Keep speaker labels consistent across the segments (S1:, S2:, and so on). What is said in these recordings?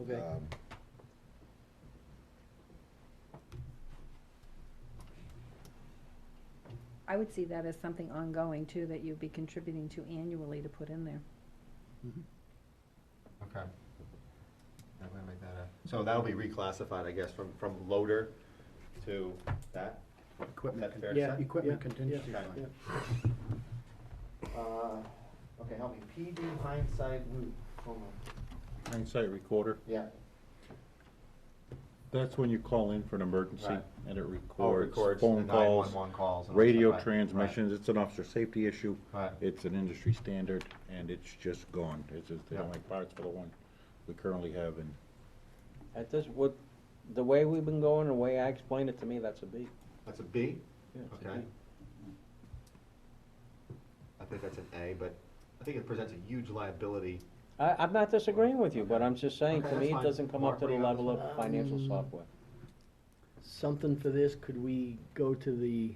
S1: Okay.
S2: Um,
S3: I would see that as something ongoing too, that you'd be contributing to annually to put in there.
S1: Mhm.
S4: Okay. Yeah, I'm gonna make that a- So that'll be reclassified, I guess, from, from loader to that?
S1: Equipment.
S4: Is that fair
S1: con-
S4: to
S1: Yeah,
S4: say?
S1: equipment
S4: Yeah,
S1: contingency
S4: yeah,
S1: fund.
S4: yeah. Uh, okay, help me, PD hindsight loop, hold on,
S5: Hindsight recorder,
S4: yeah.
S5: that's when you call in for an emergency
S4: Right.
S5: and it
S4: Oh, it
S5: records
S4: records the
S5: phone calls,
S4: 911 calls. and all
S5: radio
S4: that, right, right.
S5: transmissions, it's an officer safety issue.
S4: Right.
S5: It's an industry standard and it's just gone. It's just the
S4: Yeah.
S5: only parts for the one we currently have and
S6: At this, what, the way we've been going, the way I explained it to me, that's a B.
S4: That's a B?
S6: Yeah, it's a
S4: Okay.
S6: B.
S4: I think that's an A, but I think it presents a huge liability.
S6: I, I'm not disagreeing with you, but I'm just saying,
S4: Okay,
S6: to me,
S4: that's
S6: it
S4: fine.
S6: doesn't come up to the
S4: Mark, what do
S6: level
S4: you
S6: of
S4: have?
S6: financial
S1: Um,
S6: software.
S1: Something for this, could we go to the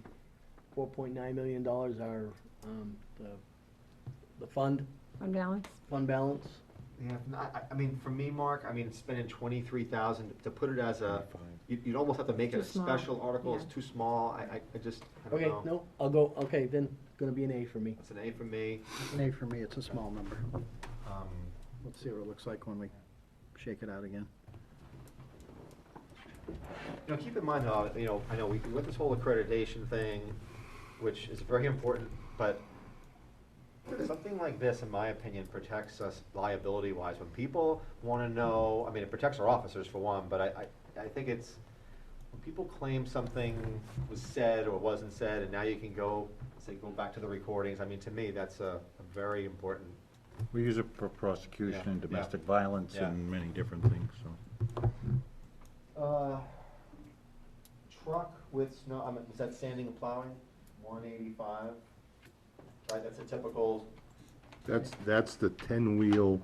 S1: four point nine million dollars, our, um, the, the fund,
S3: On balance?
S1: fund balance?
S4: Yeah, no, I, I mean, for me, Mark, I mean, spending twenty-three thousand, to put it
S5: uh,
S4: as a, you'd, you'd almost have to make it a
S3: Too small,
S4: special article, it's
S3: yeah.
S4: too small, I, I, I just, I don't
S1: Okay,
S4: know.
S1: no, I'll go, okay, then, gonna be an A for me.
S4: That's an A for me,
S7: An A for me, it's a small number.
S4: um,
S7: Let's see what it looks like when we shake it out again.
S4: you know, keep in mind, though, you know, I know, we, with this whole accreditation thing, which is very important, but something like this, in my opinion, protects us liability-wise, when people wanna know, I mean, it protects our officers for one, but I, I, I think it's, when people claim something was said or wasn't said, and now you can go, say, go back to the recordings, I mean, to me, that's a, a very important
S5: we use it for prosecution
S4: Yeah,
S5: and
S4: yeah,
S5: domestic violence
S4: yeah.
S5: and many different things, so.
S4: Uh, Truck with snow, I mean, is that sanding and plowing, one eighty-five? Right, that's a typical
S2: That's, that's the ten-wheel,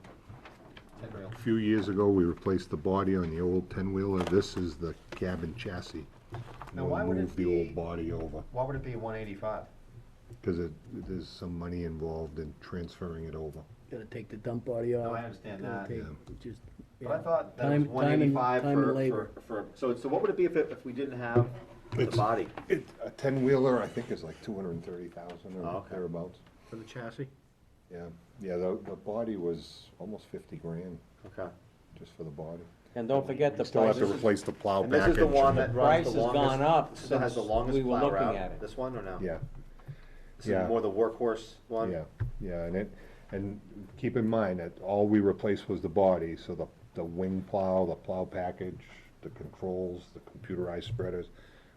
S4: ten rail.
S2: a few years ago, we replaced the body on the old ten-wheeler, this is the cabin chassis.
S4: Now, why would it
S2: We'll
S4: be-
S2: move the old body over,
S4: Why would it be one eighty-five?
S2: because it, there's some money involved in transferring it over.
S1: Gotta take the dump body off.
S4: No, I understand
S1: gotta
S4: that.
S1: take-
S2: Yeah.
S1: Just,
S4: But I
S1: yeah.
S4: thought that it was
S1: Time-
S4: one
S1: time and-
S4: eighty-five
S1: time and
S4: for,
S1: labor.
S4: for, for, so, so what would it be if it, if we didn't have the
S2: It's-
S4: body?
S2: It, a ten-wheeler, I think, is like two hundred and thirty thousand
S4: Oh,
S2: or
S4: okay.
S2: thereabouts.
S7: For the chassis?
S2: Yeah, yeah, the, the body was almost fifty grand,
S4: Okay.
S2: just for the body.
S6: And don't forget the
S2: Still have
S6: price,
S2: to replace the plow
S4: And this is
S2: package.
S4: the one that
S6: price
S4: runs the
S6: has
S4: longest.
S6: gone up
S4: this has the
S6: since
S4: longest
S6: we were
S4: plow
S6: looking
S4: route.
S6: at it.
S4: This one or no?
S2: Yeah,
S4: This is
S2: yeah.
S4: more the workhorse one?
S2: yeah, yeah, and it, and keep in mind that all we replaced was the body, so the, the wing plow, the plow package, the controls, the computerized spreaders,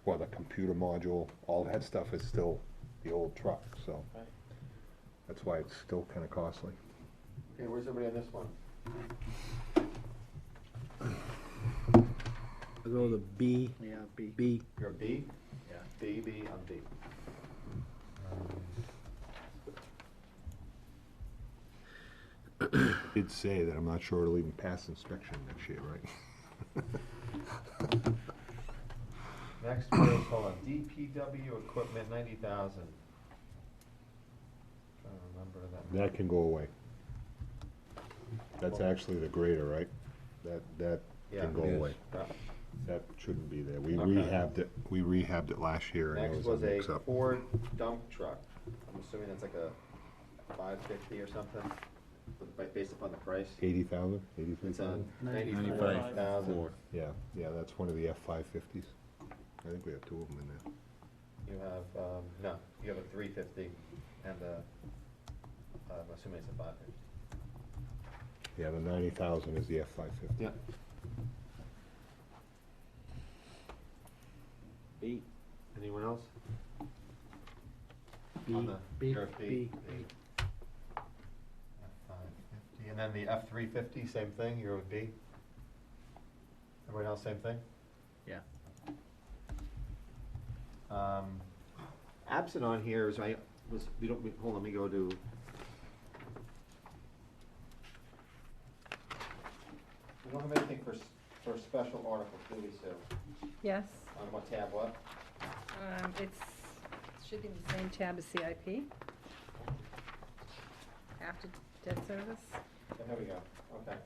S2: well, the computer module, all that stuff is still the old truck, so.
S6: Right.
S2: That's why it's still kinda costly.
S4: Okay, where's everybody on this one?
S1: I'll go with a B,
S7: Yeah, B.
S1: B.
S4: You're a B? Yeah. B, B, I'm B. Um,
S2: Did say that I'm not sure it'll even pass inspection next year, right?
S4: Next was, hold on, DPW equipment, ninety thousand. Trying to remember that.
S2: That can go away. That's actually the grader, right? That, that
S4: Yeah,
S2: can go
S4: it is. Uh,
S2: away.
S4: Yeah.
S2: That shouldn't be there. We
S4: Okay.
S2: rehabbed it, we rehabbed it last year and it
S4: Next
S2: was
S4: was
S2: a
S4: a
S2: mix-up.
S4: Ford dump truck. I'm assuming that's like a five fifty or something, but ba- based upon the price.
S2: Eighty thousand, eighty-three
S4: It's a
S2: thousand?
S6: Ninety-five.
S4: ninety-five thousand.
S5: Four.
S2: Yeah, yeah, that's one of the F five fifties. I think we have two of them in there.
S4: You have, um, no, you have a three fifty and a, I'm assuming it's a five fifty.
S2: Yeah, the ninety thousand is the F five fifty.
S4: Yeah.
S6: B.
S4: Anyone else? On
S1: B,
S4: the
S1: B,
S4: Sheriff
S1: B.
S4: F550, And then the uh, F three fifty, same thing, you're with B? Everyone else, same thing?
S7: Yeah.
S4: Um, absent on here is I, was, we don't, we- hold on, let me go to. We don't have anything for, s- for special articles, do we, Sue?
S3: Yes.
S4: On what tab, what?
S3: Um, it's, should be the same tab as CIP. After debt service.
S4: There we go, okay.